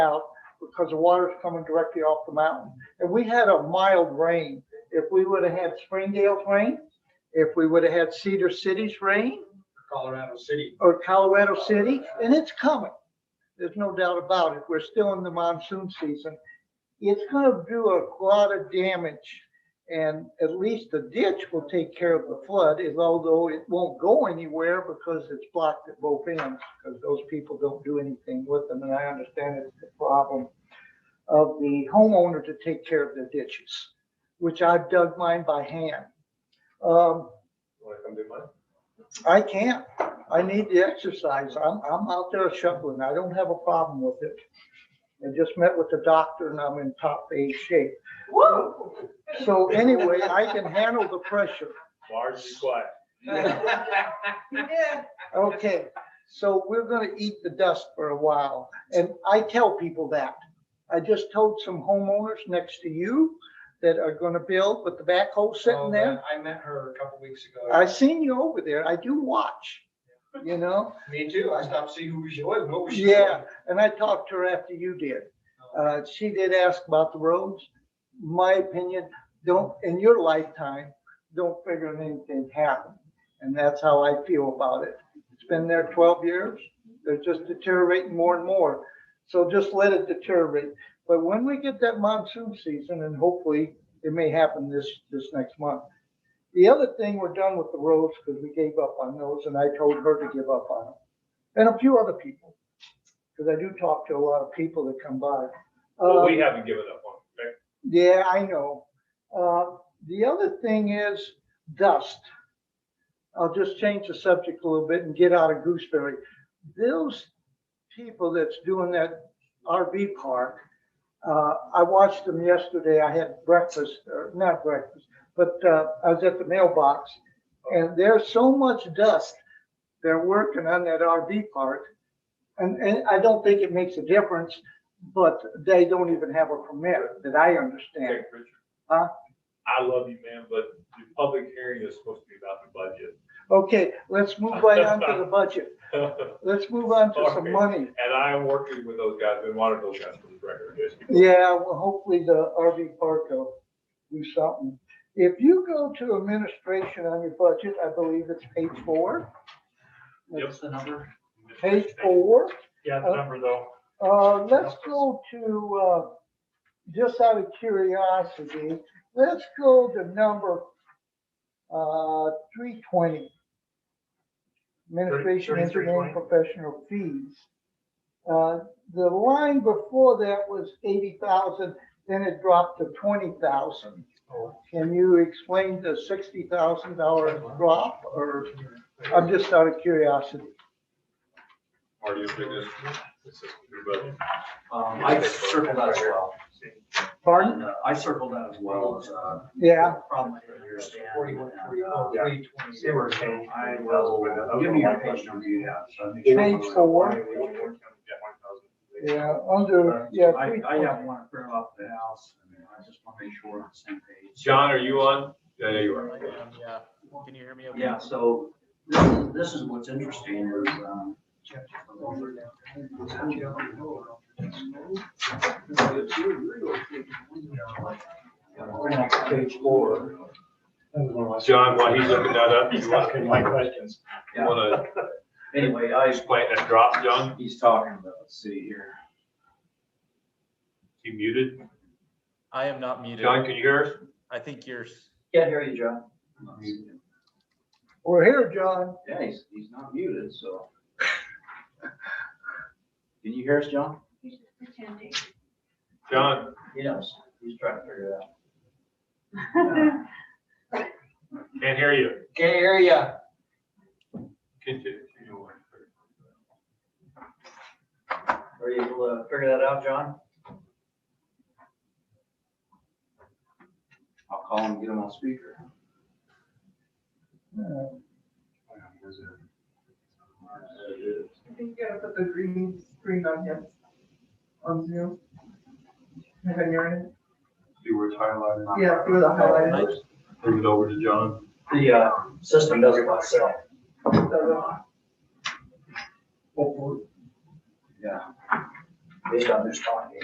out because the water's coming directly off the mountain. And we had a mild rain. If we would have had Springdale's rain, if we would have had Cedar City's rain Colorado City. or Colorado City, and it's coming. There's no doubt about it. We're still in the monsoon season. It's gonna do a lot of damage. And at least the ditch will take care of the flood, is although it won't go anywhere because it's blocked at both ends, because those people don't do anything with them, and I understand it's the problem of the homeowner to take care of their ditches, which I've dug mine by hand. Um, Want to come do mine? I can't. I need the exercise. I'm, I'm out there shuffling. I don't have a problem with it. I just met with the doctor and I'm in top A shape. Woo! So anyway, I can handle the pressure. Large and quiet. You did. Okay, so we're gonna eat the dust for a while. And I tell people that. I just told some homeowners next to you that are gonna build with the backhoe sitting there. uh, I met her a couple weeks ago. I seen you over there. I do watch, you know? Me too. I stopped to see who she was, what was she Yeah, doing. and I talked to her after you did. Uh, she did ask about the roads. My opinion, don't, in your lifetime, don't figure anything happened. And that's how I feel about it. It's been there twelve years. They're just deteriorating more and more. So just let it deteriorate. But when we get that monsoon season, and hopefully it may happen this, this next month. The other thing, we're done with the roads because we gave up on those and I told her to give up on them. And a few other people, because I do talk to a lot of people that come by. Well, we Um, haven't given up on it. right? yeah, I know. Uh, The other thing is dust. I'll just change the subject a little bit and get out of Gooseberry. Those people that's doing that RV park, uh, I watched them yesterday. I had breakfast, or not breakfast, but uh, I was at the mailbox. And there's so much dust, they're working on that RV park. And, and I don't think it makes a difference, but they don't even have a permit that I understand. Okay, Richard. Huh? I love you, man, but the public hearing is supposed to be about the Okay, let's move right on to the budget. budget. Let's move on to some money. And I am working with those guys, been wanting those guys for the record. yes. Yeah, well, hopefully the RV park will do something. If you go to administration on your budget, I believe it's page four. Yep, the number. Page four. Yeah, the number though. Uh, let's go to, uh, just out of curiosity, let's go to number, uh, three twenty. Administration, Thirty- thirty-three engineering, professional fees. Uh, the line before that was eighty thousand, then it dropped to twenty thousand. Can you explain the sixty thousand dollar drop, or, I'm just out of curiosity? Are you finished? This is your budget. Um, I circled that as well. Pardon? Uh, I circled that as well as, uh. Yeah, Probably understand. They were saying, uh, I I'll will, give me your page number you have. so I make sure- Page four. yeah, under, yeah. I, I 320. have one printed off the house, and I just want to make sure we're on the same page. John, are you on? Yeah, yeah, you are. Yeah, can you hear me? okay? Yeah, so this is, this is what's interesting is, um, page four. John, while he's looking that up, He's you want asking my questions. you wanna Anyway, I, explain that drop, John? he's talking about, let's see here. You muted? I am not muted. John, can you hear us? I think you're, s- Can't hear you, John. We're here, John. Yeah, he's, he's not muted, so. Can you hear us, John? He's just pretending. John, He knows. He's trying to figure it out. can't hear you. Can't hear ya. Continue. Are you able to figure that out, John? I'll call him, get him on speaker. I think you gotta put the green screen on him, on Zoom. And then you're in, See where it's highlighted? yeah, through the highlight. Move it over to John. The, uh, system does it by itself. so the- Yeah. based on this talking.